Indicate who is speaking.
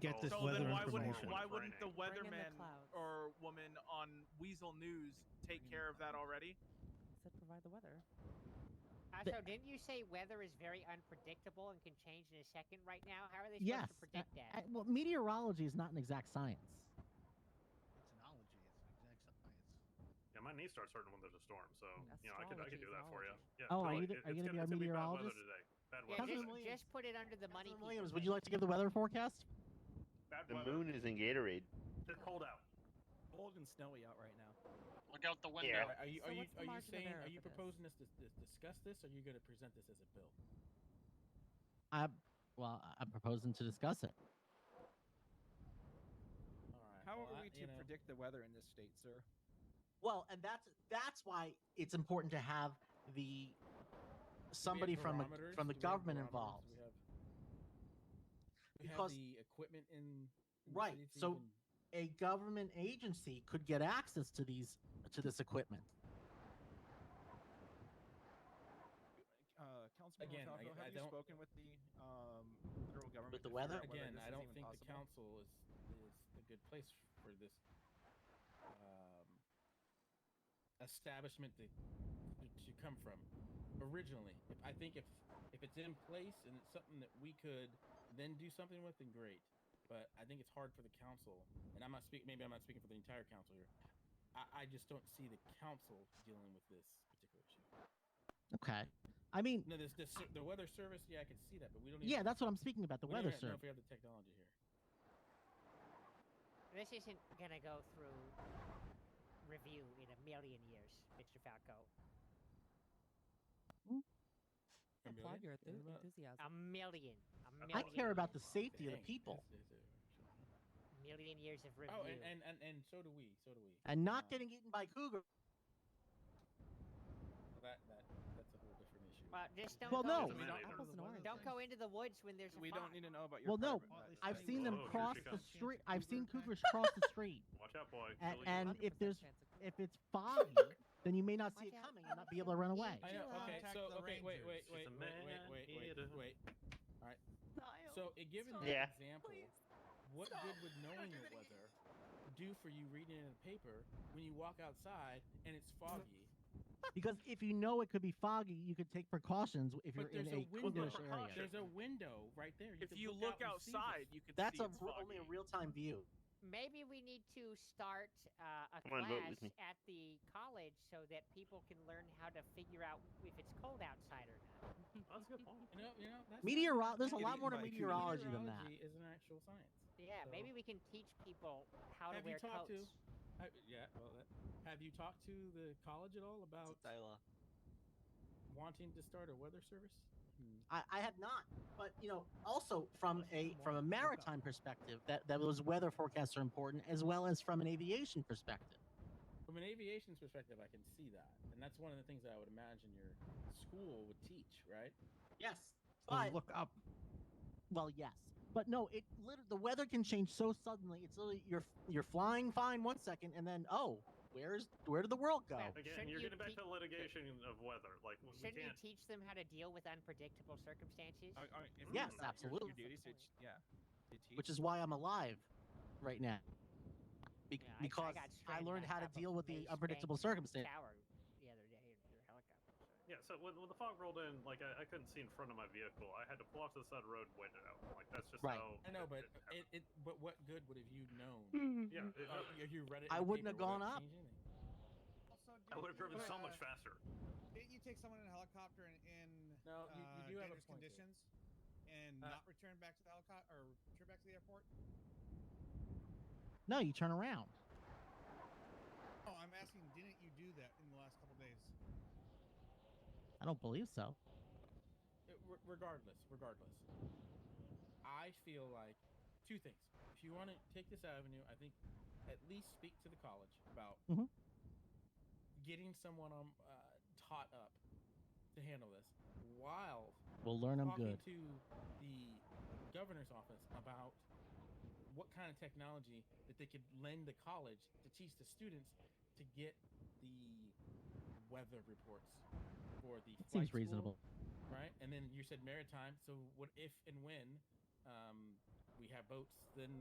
Speaker 1: get
Speaker 2: Oh,
Speaker 1: this
Speaker 2: so
Speaker 1: weather
Speaker 2: then why wouldn't
Speaker 1: information.
Speaker 2: why wouldn't the
Speaker 3: Bring in the
Speaker 2: weatherman
Speaker 3: clouds.
Speaker 2: or woman on Weasel News take care of that already?
Speaker 3: Said provide the weather.
Speaker 4: Also, didn't you say weather is very unpredictable and can change in a second right now? How are they supposed
Speaker 5: Yes,
Speaker 4: to
Speaker 5: a-
Speaker 4: predict that?
Speaker 5: Uh, well, meteorology is not an exact science.
Speaker 6: It's an ology. It's an exact science.
Speaker 2: Yeah, my knees start hurting when there's a storm, so
Speaker 3: you know, I could- I could do that for ya.
Speaker 2: Yeah,
Speaker 5: Oh, are you the- are you gonna be our meteorologist?
Speaker 2: today. Bad
Speaker 4: yeah,
Speaker 5: Cousin
Speaker 4: just,
Speaker 5: Williams-
Speaker 4: just put it under the money.
Speaker 5: Cousin
Speaker 4: piece
Speaker 5: Williams,
Speaker 4: of
Speaker 5: would
Speaker 4: it.
Speaker 5: you like to give the weather forecast?
Speaker 2: bad
Speaker 7: The moon is in Gatorade.
Speaker 2: It's cold out.
Speaker 8: cold and snowy out right now.
Speaker 9: Look out the
Speaker 7: Yeah.
Speaker 9: window.
Speaker 8: Are you
Speaker 3: So
Speaker 8: are you
Speaker 3: what's the
Speaker 8: are you
Speaker 3: margin of
Speaker 8: saying
Speaker 3: error
Speaker 8: are you
Speaker 3: for this?
Speaker 8: proposing us to, to discuss this? Or are you going to present this as a bill?
Speaker 5: I, well, I- I'm proposing to discuss it.
Speaker 8: All right.
Speaker 10: How
Speaker 8: well,
Speaker 10: are
Speaker 8: I-
Speaker 10: we
Speaker 8: you
Speaker 10: to
Speaker 8: know,
Speaker 10: predict the weather in this state, sir?
Speaker 5: Well, and that's that's why it's important to have the
Speaker 8: do we have
Speaker 5: somebody from a,
Speaker 8: barometers?
Speaker 5: from the
Speaker 8: Do we have
Speaker 5: government
Speaker 8: barometers?
Speaker 5: involved.
Speaker 8: Do We have, do we have
Speaker 5: Because-
Speaker 8: the equipment in, in the
Speaker 5: Right,
Speaker 8: city to
Speaker 5: so-
Speaker 8: even-
Speaker 5: A government agency could get access to these to this equipment.
Speaker 10: Uh, Councilman
Speaker 8: Again, I-
Speaker 10: Montalvo,
Speaker 8: I
Speaker 10: have you
Speaker 8: don't-
Speaker 10: spoken with the um, federal government?
Speaker 5: the
Speaker 10: to figure
Speaker 5: weather?
Speaker 10: out whether
Speaker 8: again,
Speaker 10: this
Speaker 8: I
Speaker 10: is
Speaker 8: don't
Speaker 10: even
Speaker 8: think the council
Speaker 10: possible?
Speaker 8: is is a good place for this um, establishment to, to to come from originally. If I think if if it's in place and it's something that we could then do something with, then great. But I think it's hard for the council, and I'm not speaking. Maybe I'm not speaking for the entire council here. I, I just don't see the council dealing with this particular issue.
Speaker 5: Okay. I mean,
Speaker 8: No, this, this ser- the weather service. Yeah, I can see that, but we don't. Even,
Speaker 5: yeah, that's what I'm speaking about. The
Speaker 8: we don't
Speaker 5: weather
Speaker 8: even know
Speaker 5: service.
Speaker 8: if we have the technology here.
Speaker 4: This isn't gonna go through review in a million years, Mr. Falco.
Speaker 8: A
Speaker 3: Applaud
Speaker 8: million?
Speaker 3: your
Speaker 8: Yeah,
Speaker 3: enthu-
Speaker 8: about-
Speaker 3: enthusiasm.
Speaker 4: A million. A
Speaker 2: I
Speaker 5: I
Speaker 4: million.
Speaker 5: care about the
Speaker 4: years.
Speaker 5: safety of the
Speaker 8: Dang,
Speaker 5: people
Speaker 8: this is a-
Speaker 4: million years of review.
Speaker 8: Oh, and, and, and, and so do we. So do we.
Speaker 5: and not
Speaker 8: Um,
Speaker 5: getting eaten by cougars.
Speaker 8: well, that, that that's a whole different issue.
Speaker 4: well, just don't
Speaker 5: Well,
Speaker 4: go
Speaker 5: no.
Speaker 4: into
Speaker 2: We
Speaker 4: the-
Speaker 2: don't-
Speaker 10: Don't,
Speaker 3: Apples and oranges.
Speaker 4: don't go into the woods when there's a
Speaker 10: we
Speaker 4: fog.
Speaker 10: don't need to know about your.
Speaker 5: Well, no,
Speaker 10: private life.
Speaker 5: I've
Speaker 10: Anyway,
Speaker 5: seen them
Speaker 2: Oh, here
Speaker 5: cross
Speaker 2: she
Speaker 5: the
Speaker 2: comes.
Speaker 5: street. I've seen cougars cross the street.
Speaker 2: Watch out, boy.
Speaker 5: A-
Speaker 2: Billy.
Speaker 5: and if
Speaker 3: 100%
Speaker 5: there's-
Speaker 3: chance of
Speaker 5: If
Speaker 3: cold.
Speaker 5: it's foggy, then you may not see it
Speaker 3: Watch out.
Speaker 5: coming and not be able to run away.
Speaker 8: I
Speaker 10: you
Speaker 8: know. Okay.
Speaker 10: contact
Speaker 8: So
Speaker 10: the
Speaker 8: okay. Wait. Wait.
Speaker 2: It's
Speaker 8: Wait.
Speaker 10: Rangers?
Speaker 2: a
Speaker 8: Wait. Wait.
Speaker 2: man
Speaker 8: Wait. Wait.
Speaker 2: eater.
Speaker 8: Wait. All right.
Speaker 3: Niall,
Speaker 8: So, uh, given
Speaker 3: Stop.
Speaker 8: that
Speaker 7: Yeah.
Speaker 8: example,
Speaker 3: please.
Speaker 8: what
Speaker 10: Stop.
Speaker 8: good would
Speaker 10: Don't
Speaker 8: knowing
Speaker 10: do
Speaker 8: the
Speaker 10: that again.
Speaker 8: weather do for you reading it in the paper when you walk outside and it's foggy?
Speaker 5: Because if you know it could be foggy, you could take precautions if
Speaker 8: But
Speaker 5: you're in a
Speaker 8: there's a window.
Speaker 5: cougarish area.
Speaker 2: Precaution.
Speaker 8: There's a window right there.
Speaker 2: if
Speaker 8: can
Speaker 2: you look
Speaker 8: out and see
Speaker 2: outside,
Speaker 8: this.
Speaker 2: you can
Speaker 5: That's
Speaker 2: see
Speaker 5: a
Speaker 2: it's
Speaker 5: r- only a
Speaker 2: foggy.
Speaker 5: real time view.
Speaker 4: Maybe we need to start uh, a
Speaker 7: Come on, vote
Speaker 4: class
Speaker 7: with me.
Speaker 4: at the college so that people can learn how to figure out if it's cold outside or not.
Speaker 2: That's a good point.
Speaker 8: You know. You know. That's
Speaker 5: Meteoro- there's a
Speaker 10: Getting
Speaker 5: lot more to
Speaker 10: eaten by a cougar.
Speaker 5: meteorology than that.
Speaker 8: Meteorology Is an actual science.
Speaker 4: Yeah,
Speaker 8: So-
Speaker 4: maybe we can teach people how
Speaker 8: Have
Speaker 4: to
Speaker 8: you
Speaker 4: wear
Speaker 8: talked to-
Speaker 4: coats.
Speaker 8: Have, yeah, well, that, have you talked to the college at all about wanting to start a weather service?
Speaker 5: I, I have not, but you know, also from a from a maritime perspective, that that those weather forecasts are important, as well as from an aviation perspective.
Speaker 8: From an aviation perspective, I can see that, and that's one of the things that I would imagine your school would teach, right?
Speaker 5: Yes,
Speaker 1: Oh,
Speaker 5: but
Speaker 1: look up.
Speaker 5: well, yes, but no. It lit- the weather can change so suddenly. It's literally you're you're flying fine one second, and then oh, where's where did the world go?
Speaker 4: Well,
Speaker 2: Again,
Speaker 4: Shouldn't
Speaker 2: you're
Speaker 4: you
Speaker 2: getting back
Speaker 4: keep-
Speaker 2: to litigation of weather. Like we
Speaker 4: Shouldn't we
Speaker 2: can't.
Speaker 4: teach them how to deal with unpredictable circumstances?
Speaker 10: I- I- if you
Speaker 5: Yes,
Speaker 10: know your-
Speaker 5: absolutely.
Speaker 10: Your duties, it, yeah. It
Speaker 5: which is why I'm alive right now. Be-
Speaker 4: Yeah, I- I
Speaker 5: because
Speaker 4: got
Speaker 5: I,
Speaker 4: stranded
Speaker 5: learned
Speaker 4: on
Speaker 5: how to
Speaker 4: top of
Speaker 5: deal with
Speaker 4: Mace
Speaker 5: the
Speaker 4: Bank
Speaker 5: unpredictable circumstances.
Speaker 4: Tower the other day in your helicopter. so-
Speaker 2: Yeah, so when, when the fog rolled in, like I, I couldn't see in front of my vehicle. I had to pull off to the side of the road and wait it out. Like that's just
Speaker 5: Right.
Speaker 2: how.
Speaker 8: I know, but
Speaker 2: it
Speaker 8: it, it, but what good would have you known?
Speaker 3: Hmm.
Speaker 2: happened. yeah, it,
Speaker 8: Uh, you- you read it. in
Speaker 5: I
Speaker 8: the
Speaker 5: wouldn't have
Speaker 8: paper,
Speaker 5: gone
Speaker 8: would it
Speaker 5: up.
Speaker 8: change anything?
Speaker 2: I would have driven so much
Speaker 8: uh,
Speaker 2: faster.
Speaker 11: Didn't you take someone in a helicopter in, in
Speaker 8: No, you- you
Speaker 11: uh,
Speaker 8: do have a
Speaker 11: dangerous
Speaker 8: point there.
Speaker 11: conditions and
Speaker 8: Uh,
Speaker 11: not return back to the helicopter or return back to the airport?
Speaker 5: No, you turn around.
Speaker 11: Oh, I'm asking, didn't you do that in the last couple days?
Speaker 5: I don't believe so.
Speaker 8: It- re- regardless, regardless, I feel like two things. If you want to take this avenue, I think at least speak to the college about
Speaker 5: Mhm.
Speaker 8: getting someone um, uh, taught up to handle this, while
Speaker 5: We'll learn them
Speaker 8: talking
Speaker 5: good.
Speaker 8: to the governor's office about what kind of technology that they could lend the college to teach the students to get the weather reports for the
Speaker 5: It seems
Speaker 8: flight school
Speaker 5: reasonable.
Speaker 8: right? And then you said maritime. So what if and when um, we have boats, then